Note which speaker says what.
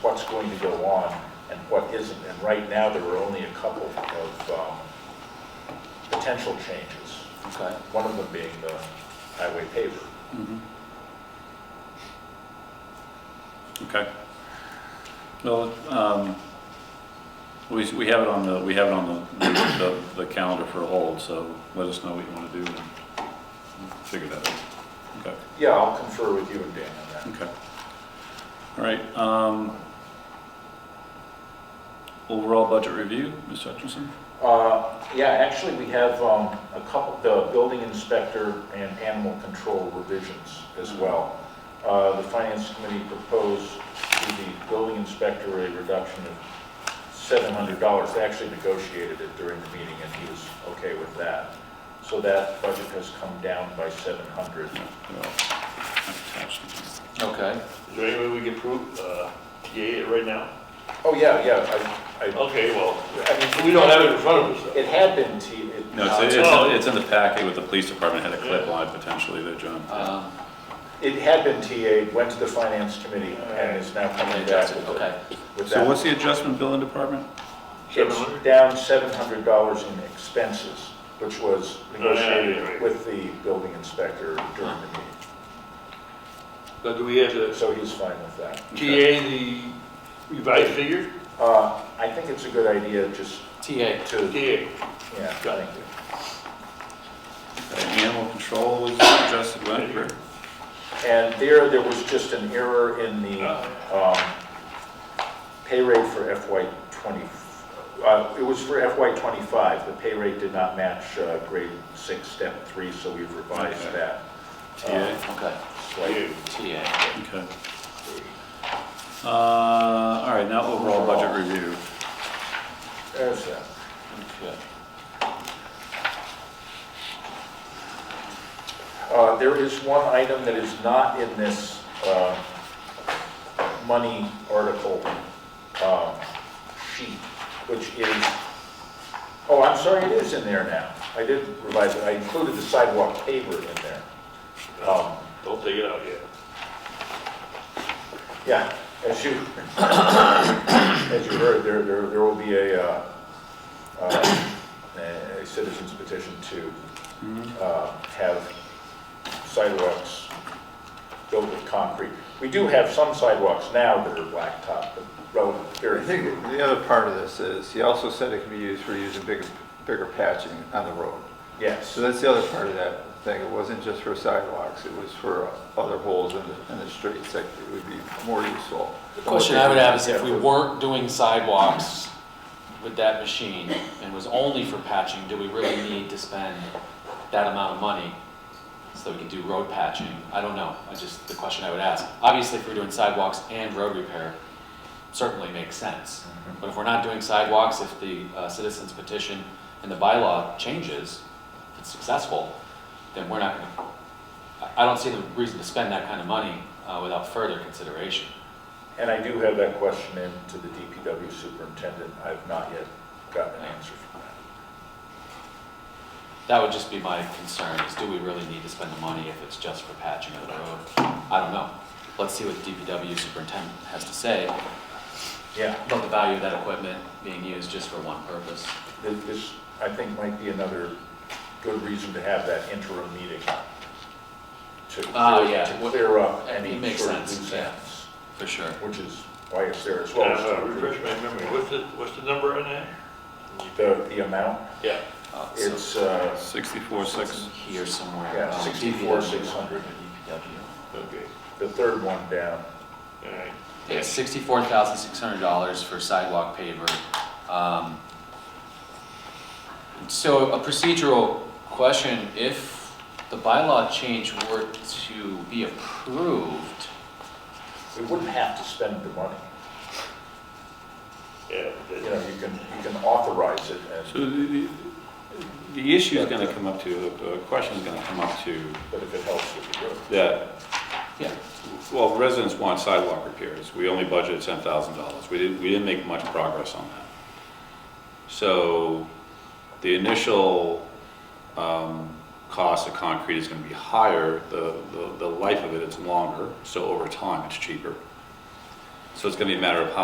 Speaker 1: what's going to go on and what isn't. And right now, there are only a couple of um, potential changes,
Speaker 2: Okay.
Speaker 1: one of them being the highway paver.
Speaker 2: Okay. Well, um, we, we have it on the, we have it on the, the, the calendar for a hold, so let us know what you want to do and we'll figure that out. Okay,
Speaker 1: Yeah, I'll confer with you and Dan on that.
Speaker 2: okay. All right, um, overall budget review, Ms. Hutchinson?
Speaker 1: Uh, Yeah, actually, we have um, a couple, the building inspector and animal control revisions as well. Uh, The finance committee proposed to the building inspector a reduction of $700. They actually negotiated it during the meeting, and he was okay with that. So that budget has come down by 700.
Speaker 2: Okay.
Speaker 3: Is there any way we can prove, uh, TA it right now?
Speaker 1: Oh, yeah, yeah, I, I-
Speaker 3: Okay, well,
Speaker 1: I mean,
Speaker 3: we don't have it in front of us.
Speaker 1: It had been T. it-
Speaker 2: No, it's, it's, it's in the packet with the police department, had a clip line potentially there, John.
Speaker 4: Um,
Speaker 1: It had been TA, went to the finance committee, and is now coming back
Speaker 4: Adjusted,
Speaker 1: with it.
Speaker 4: okay.
Speaker 1: with
Speaker 2: So
Speaker 1: that.
Speaker 2: what's the adjustment billing department?
Speaker 1: It's down seven hundred dollars in expenses, which was
Speaker 3: Oh, yeah, yeah,
Speaker 1: negotiated
Speaker 3: yeah.
Speaker 1: with the building inspector during the meeting.
Speaker 3: But do we have the
Speaker 1: So he's fine with that.
Speaker 3: TA the revised figure?
Speaker 1: Uh, I think it's a good idea just
Speaker 4: TA,
Speaker 1: to,
Speaker 3: TA,
Speaker 1: yeah, thank you.
Speaker 2: Okay, Animal control was adjusted, right? Rick?
Speaker 1: And there, there was just an error in the um, pay rate for FY '20, uh, it was for FY '25. The pay rate did not match uh, grade six, step three, so we've revised
Speaker 2: Okay.
Speaker 1: that.
Speaker 2: TA,
Speaker 4: okay,
Speaker 1: slightly.
Speaker 4: TA.
Speaker 2: okay. Uh, all right, now overall budget review.
Speaker 1: There's that.
Speaker 4: Okay.
Speaker 1: Uh, There is one item that is not in this uh, money article um, sheet, which is, oh, I'm sorry, it is in there now. I did revise it, I included the sidewalk paver in there. Um,
Speaker 3: don't take it out yet.
Speaker 1: Yeah, as you, as you heard, there, there there will be a, uh, uh, a citizen's petition
Speaker 4: Mm-hmm.
Speaker 1: to uh, have sidewalks built with concrete. We do have some sidewalks now that are blacktop, but relative,
Speaker 5: I think
Speaker 1: very,
Speaker 5: the other part of this is, he also said it can be used for using bigger, bigger patching on the road.
Speaker 1: yes.
Speaker 5: So that's the other part of that thing, it wasn't just for sidewalks, it was for other holes in the, in the streets that would be more useful.
Speaker 4: The question I would have is if we weren't doing sidewalks with that machine and was only for patching, do we really need to spend that amount of money so that we can do road patching? I don't know, I just, the question I would ask. Obviously, if we're doing sidewalks and road repair, certainly makes sense. But if we're not doing sidewalks, if the uh, citizens petition and the bylaw changes, if it's successful, then we're not gonna, I- I don't see the reason to spend that kind of money uh, without further consideration.
Speaker 1: And I do have that question in to the DPW superintendent. I've not yet gotten an answer from that.
Speaker 4: That would just be my concern, is do we really need to spend the money if it's just for patching of the road? I don't know. Let's see what the DPW superintendent has to say
Speaker 1: Yeah.
Speaker 4: about the value of that equipment being used just for one purpose.
Speaker 1: Th- This, I think, might be another good reason to have that interim meeting to
Speaker 4: Ah,
Speaker 1: clear,
Speaker 4: yeah.
Speaker 1: to clear up
Speaker 4: It
Speaker 1: any
Speaker 4: makes
Speaker 1: sort of
Speaker 4: sense,
Speaker 1: loose
Speaker 4: yeah.
Speaker 1: ends,
Speaker 4: For sure.
Speaker 1: which is why it's there as well. as
Speaker 3: Uh,
Speaker 1: to
Speaker 3: refresh my memory, what's the, what's the number on that?
Speaker 1: The, the amount,
Speaker 3: Yeah.
Speaker 4: Uh, so
Speaker 1: it's, uh,
Speaker 2: Sixty-four, six,
Speaker 4: Here somewhere.
Speaker 1: Yeah,
Speaker 4: um,
Speaker 1: 64,
Speaker 4: DPW.
Speaker 1: 600.
Speaker 4: DPW.
Speaker 3: Okay,
Speaker 1: the third one down.
Speaker 3: all right.
Speaker 4: It's sixty-four thousand six hundred dollars for sidewalk paver. Um, So a procedural question, if the bylaw change were to be approved,
Speaker 1: We wouldn't have to spend the money.
Speaker 3: Yeah,
Speaker 1: You
Speaker 3: that-
Speaker 1: know, you can, you can authorize it and,
Speaker 2: so the, the- the issue's gonna come up to, the question's gonna come up to
Speaker 1: but if it helps with the road.
Speaker 2: that,
Speaker 4: yeah,
Speaker 2: well, residents want sidewalk repairs, we only budgeted ten thousand dollars, we didn't, we didn't make much progress on that. So, the initial, um, cost of concrete is gonna be higher, the, the, the life of it is longer, so over time, it's cheaper. So it's gonna be a matter of how